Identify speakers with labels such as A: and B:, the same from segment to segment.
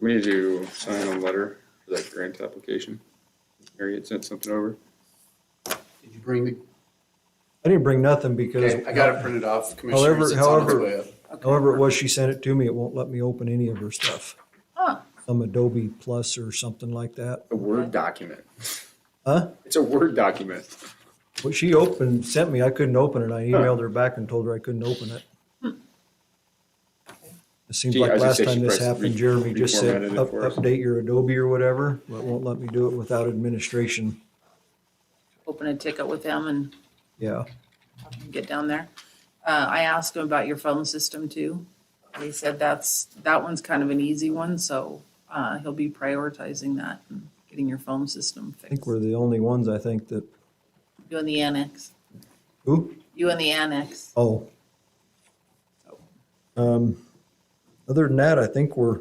A: We need to sign a letter for that grant application. Mary had sent something over.
B: Did you bring the,
C: I didn't bring nothing because.
B: okay, I got it printed off,
C: However-
B: commissioners, it's on its
C: however-
B: way up.
C: However, it was, she sent it to me. It won't let me open any of her stuff.
D: Huh.
C: Some Adobe Plus or something like that.
A: A Word document.
C: Huh?
A: It's a Word document.
C: Well, she opened, sent me, I couldn't open it. I emailed her back and told her I couldn't open it. It seems
A: Gee, I
C: like
A: was gonna
C: last
A: say she
C: time this
A: pressed
C: happened,
A: re-
C: Jeremy just said,
A: reformatted it
C: "Up-
A: for us."
C: update your Adobe or whatever, but it won't let me do it without administration.
D: open a ticket with them and
C: Yeah,
D: have them get down there. Uh, I asked them about your phone system too. They said that's, that one's kind of an easy one, so, uh, he'll be prioritizing that and getting your phone system
C: I think
D: fixed.
C: we're the only ones, I think, that,
D: You and the annex,
C: who?
D: you and the annex.
C: Oh. Um, other than that, I think we're,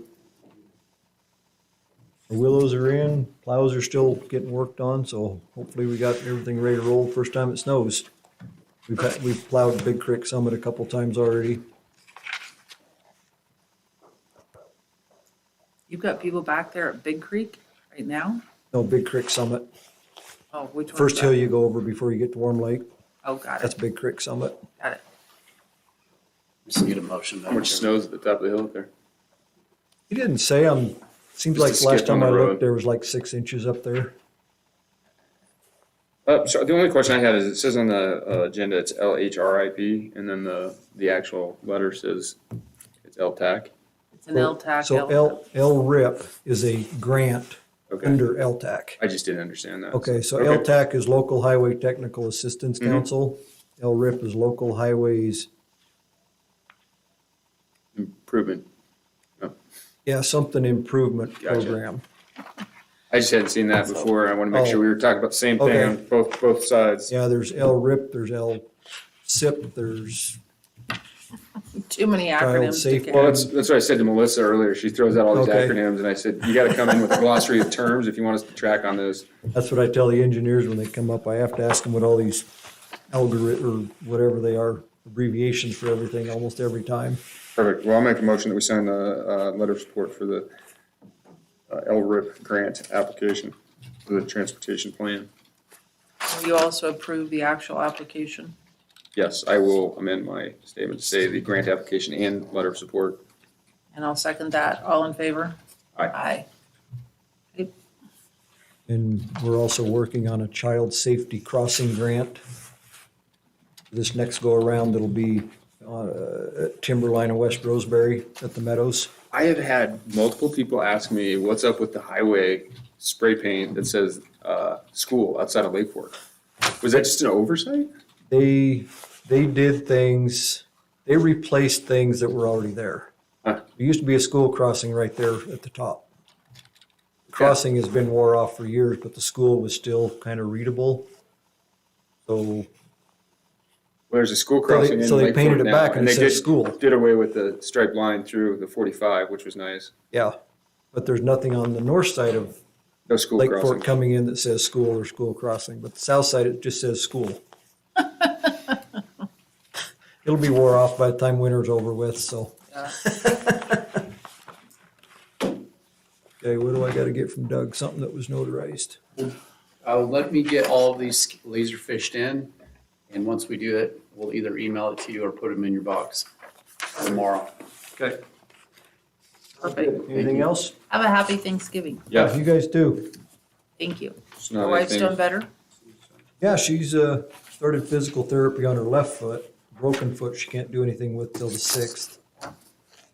C: the willows are in, plows are still getting worked on, so hopefully we got everything ready to roll first time it snows. We've, had- we've plowed Big Creek Summit a couple times already.
D: You've got people back there at Big Creek right now?
C: No, Big Creek Summit,
D: Oh, which one?
C: first hill you go over before you get to Warm Lake,
D: Oh, got
C: that's
D: it,
C: Big Creek Summit.
D: got it.
B: Just get a motion.
A: How much snow's at the top of the hill up there?
C: He didn't say, um,
A: Just
C: seems like
A: a
C: last
A: skip on
C: time
A: the
C: I looked,
A: road.
C: there was like six inches up there.
A: Uh, so the only question I had is, it says on the uh, agenda, it's LHRIP, and then the, the actual letter says it's LTAC.
D: It's an LTAC.
C: So L, LRIP is a grant
A: Okay,
C: under LTAC.
A: I just didn't understand that.
C: Okay, so
A: Okay. Mm-hmm.
C: LTAC is Local Highway Technical Assistance Council. LRIP is Local Highways,
A: Improvement.
C: yeah, something improvement
A: Gotcha.
C: program.
A: I just hadn't seen that before. I want to make sure we were talking about the same thing
C: Oh. Okay.
A: on both, both sides.
C: Yeah, there's LRIP, there's LSIP, there's,
D: Too many acronyms to
C: safety.
D: get.
A: Well, that's, that's what I said to Melissa earlier. She throws out all these
C: Okay.
A: acronyms and I said, you gotta come in with a glossary of terms if you want us to track on those.
C: that's what I tell the engineers when they come up. I have to ask them what all these algorithm, or whatever they are, abbreviations for everything almost every time.
A: Perfect. Well, I'll make a motion that we sign the, uh, letter of support for the uh, LRIP grant application for the transportation plan.
D: Will You also approve the actual application.
A: Yes, I will amend my statement to say the grant application and letter of support.
D: And I'll second that. All in favor?
A: Aye.
D: Aye.
C: And we're also working on a child safety crossing grant. This next go-around, it'll be uh, at Timberline and West Roseberry at the Meadows.
A: I have had multiple people ask me, what's up with the highway spray paint that says, uh, school outside of Lake Fork? Was that just an oversight?
C: they they did things they replaced things that were already there
A: Huh.
C: there used to be a school crossing right there at the top crossing has been wore off for years but the school was still kind of readable so
A: Well, There's a school
C: So they-
A: crossing in
C: so they
A: Lake
C: painted
A: Fork
C: it
A: now,
C: back and
A: they
C: it
A: did-
C: says school.
A: Did away with the striped line through the forty-five, which was nice.
C: yeah but there's nothing on the north side of
A: No school
C: lake
A: crossing.
C: fork coming in that says school or school crossing but the south side it just says school it'll be wore off by the time winter's over with so
D: Yeah.
C: okay what do i got to get from doug something that was notarized
B: Uh, let me get all of these laser fished in, and once we do it, we'll either email it to you or put them in your box tomorrow.
A: Okay.
D: Perfect.
C: Anything else?
D: Have a happy Thanksgiving.
A: Yeah.
C: You guys do.
D: Thank you.
A: it's
D: Your
A: not
D: wife's
A: anything-
D: doing better?
C: Yeah, she's, uh, started physical therapy on her left foot, broken foot she can't do anything with till the sixth.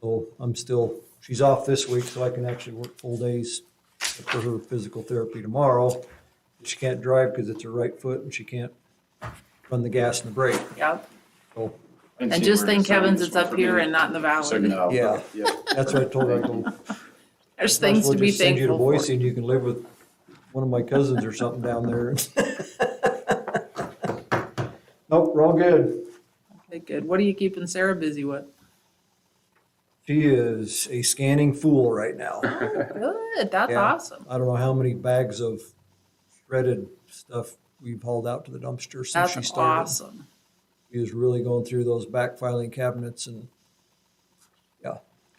C: So I'm still, she's off this week, so I can actually work full days for her physical therapy tomorrow. She can't drive because it's her right foot and she can't run the gas and the brake,
D: Yeah.
C: so.
D: And just thank heavens it's up here and not in the valley.
B: No.
C: Yeah. That's what I told her, I go,
D: There's
C: might as
D: things
C: well
D: to be
C: just send you to
D: thankful
C: Boise
D: for.
C: and you can live with one of my cousins or something down there. Nope, we're all good.
D: Okay, good. What are you keeping Sarah busy with?
C: She is a scanning fool right now.
D: Good, that's
C: Yeah.
D: awesome.
C: I don't know how many bags of shredded stuff we've hauled out to the dumpster since she
D: That's
C: started.
D: awesome.
C: She was really going through those back filing cabinets and,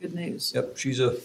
D: Good news.
C: yep, she's a,